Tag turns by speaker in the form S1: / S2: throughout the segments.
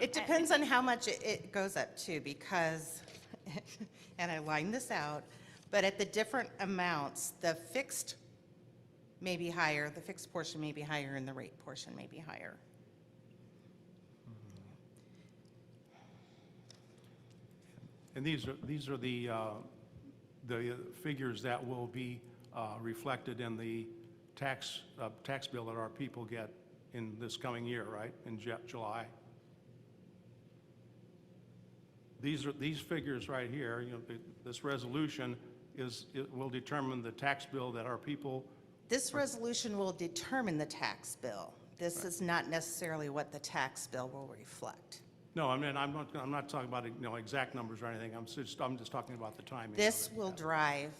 S1: It depends on how much it- it goes up to, because, and I lined this out, but at the different amounts, the fixed may be higher, the fixed portion may be higher, and the rate portion may be higher.
S2: And these are, these are the, uh, the figures that will be uh, reflected in the tax, uh, tax bill that our people get in this coming year, right, in Ju- July? These are, these figures right here, you know, th- this resolution is, it will determine the tax bill that our people,
S1: This resolution will determine the tax bill. This is not necessarily what the tax bill will reflect.
S2: no, I mean, I'm not, I'm not talking about, you know, exact numbers or anything, I'm just, I'm just talking about the timing of
S1: This
S2: it.
S1: will drive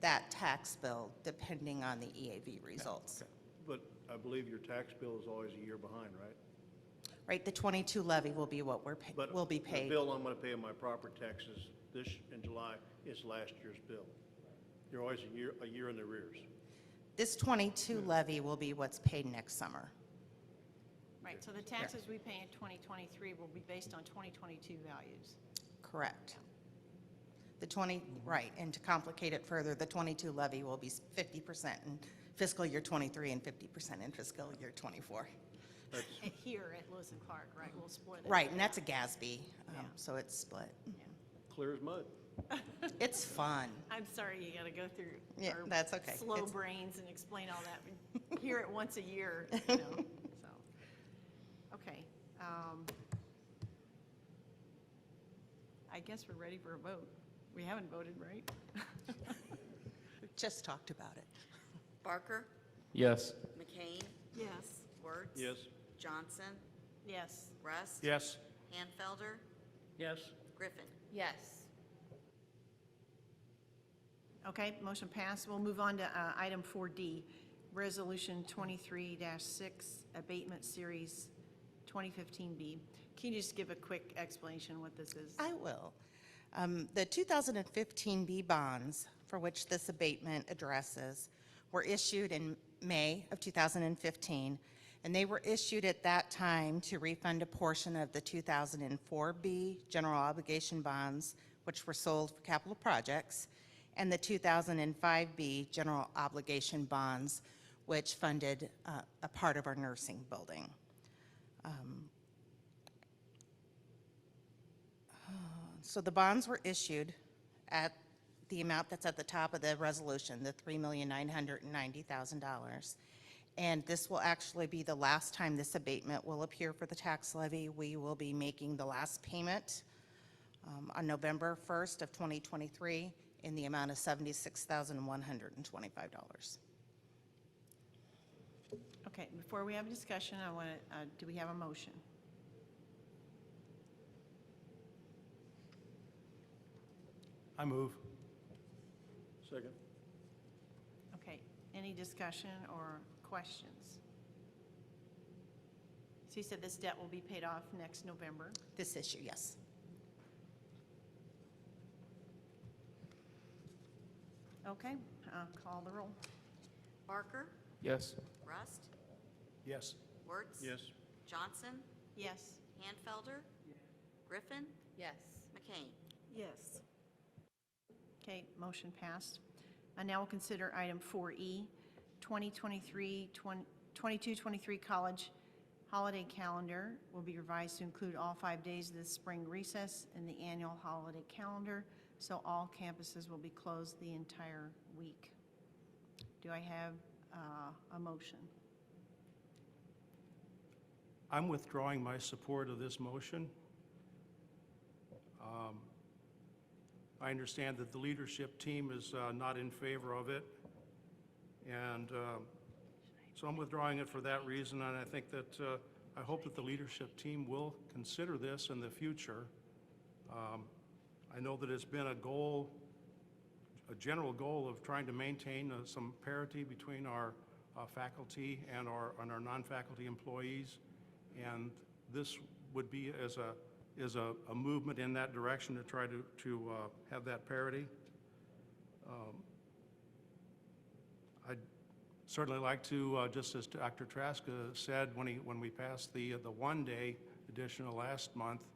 S1: that tax bill depending on the EAV results.
S3: But I believe your tax bill is always a year behind, right?
S1: Right, the 22 levy will be what we're, pay-
S3: But
S1: will be paid.
S3: The bill I'm gonna pay on my property taxes this, in July, is last year's bill. You're always a year, a year in the rears.
S1: This 22 levy will be what's paid next summer.
S4: Right, so the taxes we pay in 2023 will be based on 2022 values.
S1: Correct. The 20, right, and to complicate it further, the 22 levy will be s- 50% in fiscal year '23 and 50% in fiscal year '24.
S3: That's,
S4: At- Eh, Here at Lewis and Clark, right, we'll split it.
S1: Right, and that's a GASB, um,
S4: Yeah.
S1: so it's split.
S4: Yeah.
S3: clear as mud.
S1: It's fun.
S4: I'm sorry, you gotta go through.
S1: Yeah,
S4: our
S1: that's okay.
S4: Slow
S1: It's-
S4: brains and explain all that. We Hear it once a year, you know, so. Okay. um, I guess we're ready for a vote. We haven't voted, right?
S1: We Just talked about it.
S5: Barker,
S6: Yes.
S5: McCain,
S4: Yes.
S5: Wertz.
S3: Yes.
S5: Johnson,
S4: Yes.
S5: Rust.
S2: Yes?
S5: Hanfelder,
S3: Yes.
S5: Griffin.
S7: Yes.
S4: Okay, motion passed. We'll move on to uh, item 4D, Resolution 23-6, Abatement Series 2015B. Can you just give a quick explanation what this is?
S1: I will. Um, The 2015 B bonds, for which this abatement addresses, were issued in May of 2015, and they were issued at that time to refund a portion of the 2004 B general obligation bonds, which were sold for capital projects, and the 2005 B general obligation bonds, which funded uh, a part of our nursing building. So the bonds were issued at the amount that's at the top of the resolution, the $3,990,000. And this will actually be the last time this abatement will appear for the tax levy. We will be making the last payment um, on November 1st of 2023 in the amount of $76,125.
S4: Okay, before we have a discussion, I want to, do we have a motion?
S2: I move.
S3: Second.
S4: Okay, any discussion or questions? So you said this debt will be paid off next November.
S1: This issue, yes.
S4: Okay, uh, call the roll.
S5: Barker,
S6: Yes.
S5: Rust,
S2: Yes.
S5: Wertz.
S3: Yes.
S5: Johnson,
S4: Yes.
S5: Hanfelder, Griffin,
S7: Yes.
S5: McCain.
S4: Yes. Okay, motion passed. And now we'll consider item E, 4E, 2023, 22-23 college holiday calendar will be revised to include all five days of the spring recess and the annual holiday calendar, so all campuses will be closed the entire week. Do I have uh, a motion?
S2: I'm withdrawing my support of this motion. Um, I understand that the leadership team is uh, not in favor of it, and uh, so I'm withdrawing it for that reason, and I think that, uh, I hope that the leadership team will consider this in the future. Um, I know that it's been a goal, a general goal of trying to maintain uh, some parity between our uh, faculty and our, and our non-faculty employees. And this would be as a, is a, a movement in that direction to try to, to uh, have that parity. Um, I'd certainly like to, uh, just as Dr. Trask uh, said, when he, when we passed the, the one-day additional last month.